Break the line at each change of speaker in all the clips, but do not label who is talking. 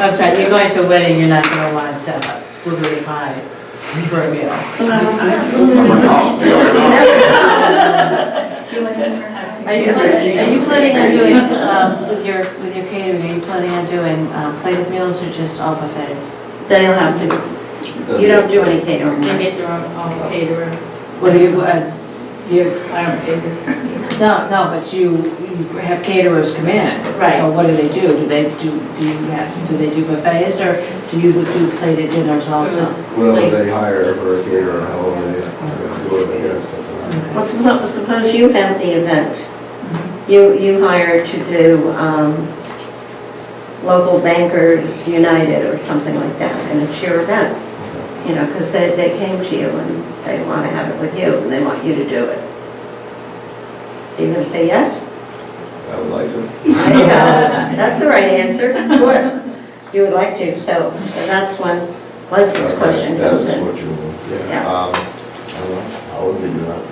I'm sorry, you're going to a wedding, you're not gonna want uh, blueberry pie for a meal. Are you planning, are you planning on doing, um, with your, with your catering, are you planning on doing um, plated meals or just all buffets?
They'll have to, you don't do any catering.
They
right?
get their own own caterer.
What do you, uh, you,
I don't cater.
no, no, but you, you have caterers come in.
Right.
So what do they do? Do they do, do you have, do they do buffets or do you do plated dinners
It
also?
was
Whatever
like-
they hire for a caterer, however they, whatever they have, something
Well, suppo- suppose you have the event. You, you hire to do um, Local Bankers United or something like that, and it's your event. You know, because they, they came to you and they want to have it with you, and they want you to do it. Are you going to say yes?
like that. I would like to.
There you go. That's the right answer, of course. You would like to, so so that's when Leslie's question comes
That's
in.
what you want,
Yeah.
yeah. Um, I don't know, I would do that.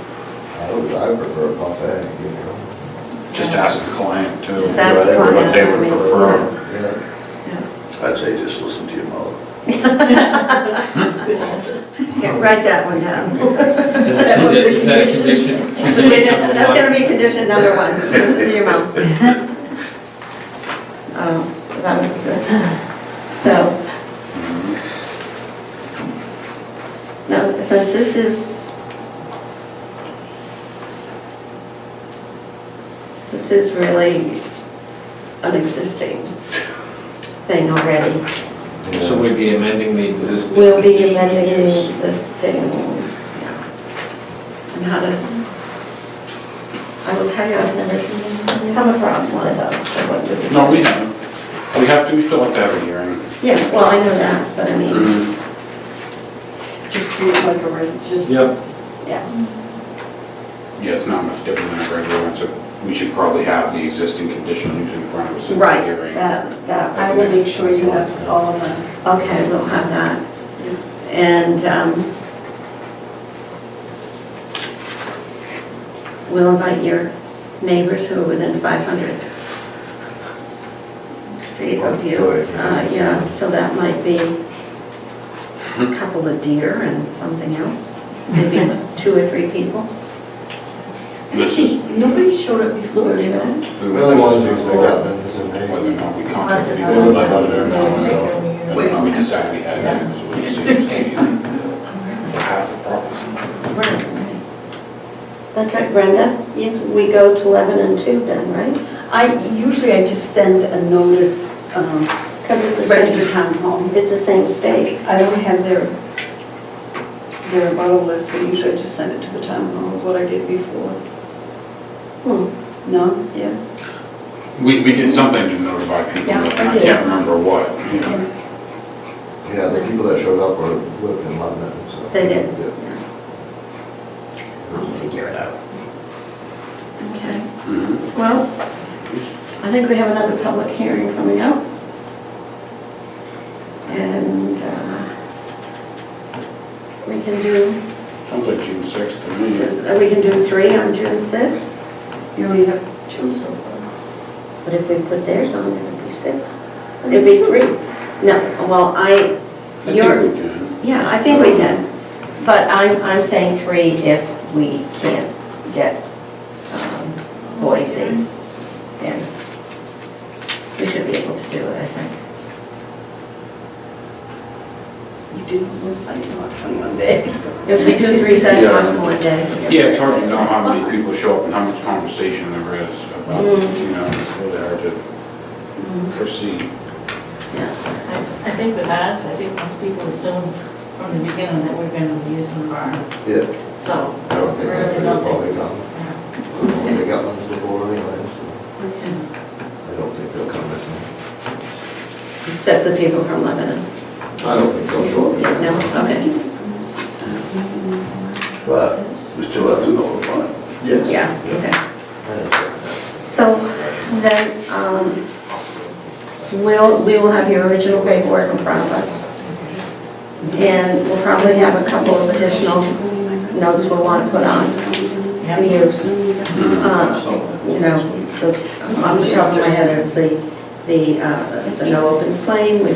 I would, I would prefer a buffet, you know.
Just ask the client too.
Just ask the
what
client,
they
I
would
mean,
prefer.
yeah.
Yeah.
I'd say just listen to your mother.
Yeah, Write that one down.
Is that is that a condition?
That's gonna be condition number one, listen to your mom. Um, That would be good. So. Now, since this is. This is really an existing thing already.
So we'd be amending the existing.
We'll be
condition of
amending
use.
the existing, yeah. And how does, I will tell you, I've never come across one of those, so what would be?
No, we haven't. We have to, we still have to have a hearing.
Yeah, well, I know that, but I mean,
Just treat it like a, reg- just
Yep,
yeah,
Yeah, it's not much different than a regular one, so we should probably have the existing conditional use in front of us in the
right,
hearing.
that, that,
I will make sure you have all of them.
okay, we'll have that. And, um, we'll invite your neighbors who are within 500 feet of you.
Sure.
Uh, yeah, so that might be a couple of deer and something else, maybe two or three people.
This is,
Nobody showed up before, you know?
we
The only
went
ones
to
who's
this
they got business in there.
whether or not we contacted people.
another one.
Whether or not we decided we had it, so we just stayed in half the property.
That's right, Brenda? Yes. We go to Lebanon too then, right?
I, usually I just send a notice um,
Because it's the
right to the
same,
town hall.
it's the same state.
I don't have their, their bottle list, so usually I just send it to the town hall, is what I did before.
Hmm.
No, yes?
We, we did something to notify people,
Yeah,
but
I
I
did.
can't remember what, you know.
Yeah, the people that showed up were, lived in London, so.
They did.
Yeah.
Figure it out. Okay,
Mhm.
well, I think we have another public hearing coming up. And uh, we can do
Sounds like June sixth to me.
Is- uh, We can do three on June sixth,
You only have two so far.
but if we put theirs on, it'd be six. It'd be three. No, well, I,
I think
you're,
we can.
yeah, I think we can. But I'm, I'm saying three if we can't get um, Boise in. We should be able to do it, I think.
You did most sidewalks on Mondays.
If we do three sidewalks in one day.
Yeah, it's hard to know how many people show up and how much conversation there is about,
Mm.
you know, it's really hard to proceed.
I think with us, I think most people assume from the beginning that we're gonna be using barn,
Yeah,
so.
I don't think
Really
they
nothing.
probably got, they got ones before anyway, so I don't think they'll come this month.
Except the people from Lebanon.
I don't think they'll show up. again.
No, okay,
But we still have to know the line.
Yes.
yeah, okay.
I don't think so.
So then, um, we'll, we will have your original paperwork in front of us. And we'll probably have a couple of additional notes we'll want to put on.
Yeah.
the use. Uh, You know, the- on the top of my head is the, the, uh, the no open flame, we